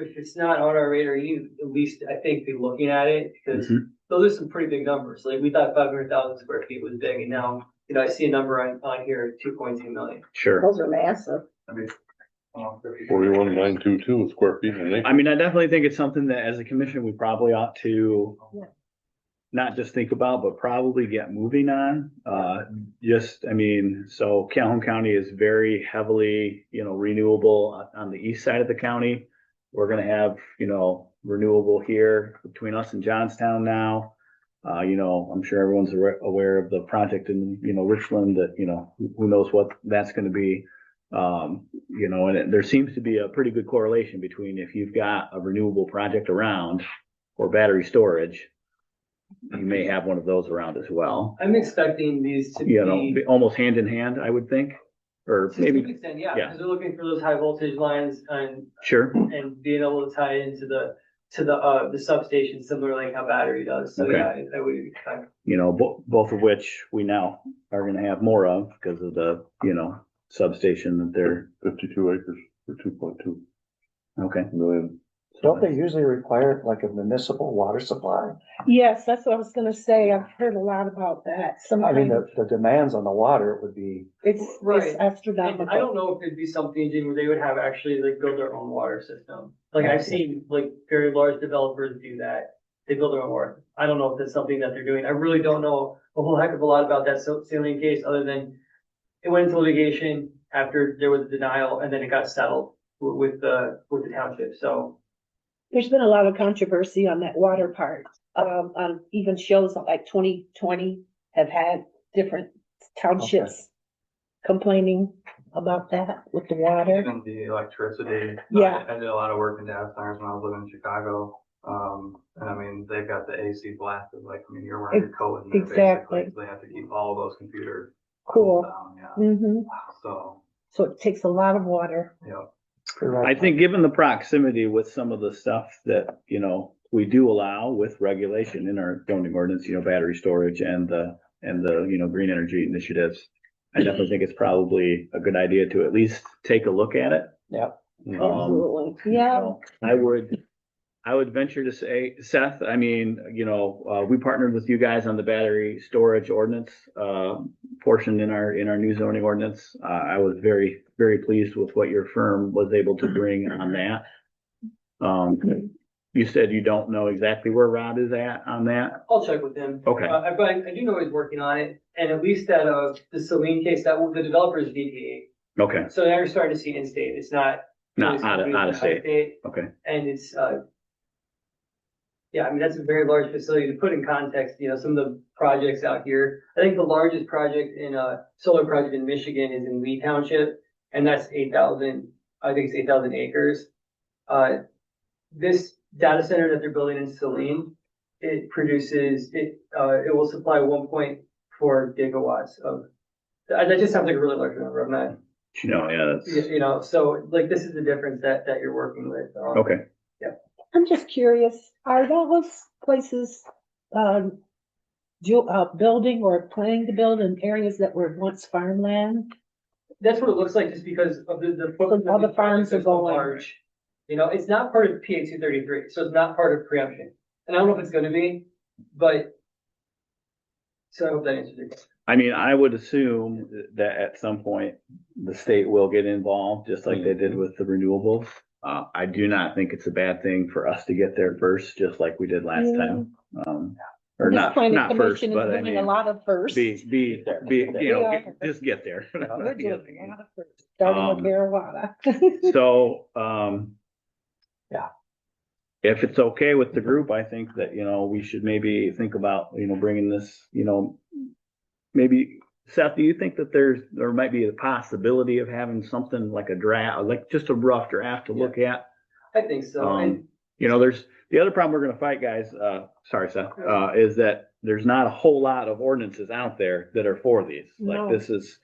if it's not on our radar, you at least, I think, be looking at it, Mm-hmm. because Mm-hmm. those are some pretty big numbers. Like, we thought five hundred thousand square feet was big, and now, you know, I see a number on, on here, two point two million. Sure. Those are massive. Um, Forty-one, nine, two, two square feet an acre. I mean, I definitely think it's something that as a commission, we probably ought to Yeah. not just think about, but probably get moving on. Uh, just, I mean, so Calhoun County is very heavily, you know, renewable on- on the east side of the county. We're gonna have, you know, renewable here between us and Johnstown now. Uh, you know, I'm sure everyone's aware- aware of the project in, you know, Richland that, you know, who- who knows what that's gonna be. Um, you know, and it- there seems to be a pretty good correlation between if you've got a renewable project around or battery storage, you may have one of those around as well. I'm expecting these to be. You know, be almost hand in hand, I would think, or To some maybe, extent, yeah, yeah. because they're looking for those high voltage lines and, sure. and being able to tie into the, to the, uh, the substation similar like how battery does. So, Okay. yeah, I- I would expect. you know, bo- both of which we now are gonna have more of because of the, you know, substation that they're, Fifty-two acres for two point two okay. million. Don't they usually require like a municipal water supply? Yes, that's what I was gonna say. I've heard a lot about that. I mean, Sometimes the, the demands on the water would be, it's, Right. it's And I astronomical. don't know if it'd be something, Jim, where they would have actually like build their own water system. Like I've seen like very large developers do that. They build their own water. I don't know if that's something that they're doing. I really don't know a whole heck of a lot about that sa- salient case, other than it went into litigation after there was a denial and then it got settled wi- with the, with the township, so. There's been a lot of controversy on that water part. Um, on even shows like twenty twenty have had different townships complaining about that with the water. Even the electricity. Yeah. I I did a lot of work in data centers when I was living in Chicago. Um, and I mean, they've got the AC blasted, like, I mean, you're wearing your coat in there Exactly. basically. so They have to keep all those computers. Cool. down, Yeah, hmm so, So it takes a lot of water. yeah. I think given the proximity with some of the stuff that, you know, we do allow with regulation in our zoning ordinance, you know, battery storage and the, and the, you know, green energy initiatives. I definitely think it's probably a good idea to at least take a look at it. Oh, Um, Absolutely. Yeah. So, I would, I would venture to say, Seth, I mean, you know, uh, we partnered with you guys on the battery storage ordinance, uh, portion in our, in our new zoning ordinance. Uh, I was very, very pleased with what your firm was able to bring on that. Um, you said you don't know exactly where Rob is at on um, that. I'll check with them. Okay, Uh, but I I do know he's working on it, and at least that, uh, the saline case, that the developer's DPA. E. okay, So now you're starting to see in-state, it's not not out of, out of state. Okay. And it's, uh, yeah, I mean, that's a very large facility. To put in context, you know, some of the projects out here, I think the largest project in, uh, solar project in Michigan is in Lee Township, and that's eight thousand, I think it's eight thousand acres. Uh, this data center that they're building in Saline, it produces, it, uh, it will supply one point four gigawatts of, that that just sounds like a really large number. I'm not, No, yeah, you that's, you know, so like this is the difference that, that you're working with. um, okay. I'm just curious, are those places, um, ju- uh, building or planning to build in areas that were once farmland? That's what it looks like, just because of the, the. Because all the farms are so going. large. You know, it's not part of PA two thirty-three, so it's not part of preemption, and I don't know if it's gonna be, but. So I hope that answers your question. I mean, I would assume that at some point, the state will get involved, just like they did with the renewables. Uh, I do not think it's a bad thing for us to get there first, just like we did last time. Um, or This not, planning not first, commission is but I doing A mean, lot of firsts. be, be, be, you know, Yeah. get- just get there. We're doing a lot of firsts, Starting Um, with marijuana. So, um. Yeah. If it's okay with the group, I think that, you know, we should maybe think about, you know, bringing this, you know. Maybe, Seth, do you think that there's, there might be a possibility of having something like a draft, like just a rough draft to look at? I think so, and Um, you know, there's, the other problem we're gonna fight, guys, uh, sorry, Seth, uh, is that there's not a whole lot of ordinances out there that are for these. Like, No. this is,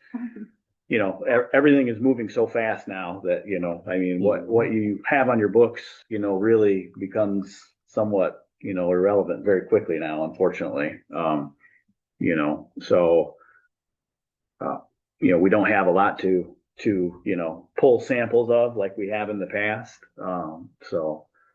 you know, e- everything is moving so fast now that, you know, I mean, what, what you have on your books, you know, really becomes somewhat, you know, irrelevant very quickly now, unfortunately. Um, you know, so, uh, you know, we don't have a lot to, to, you know, pull samples of like we have in the past. Um, so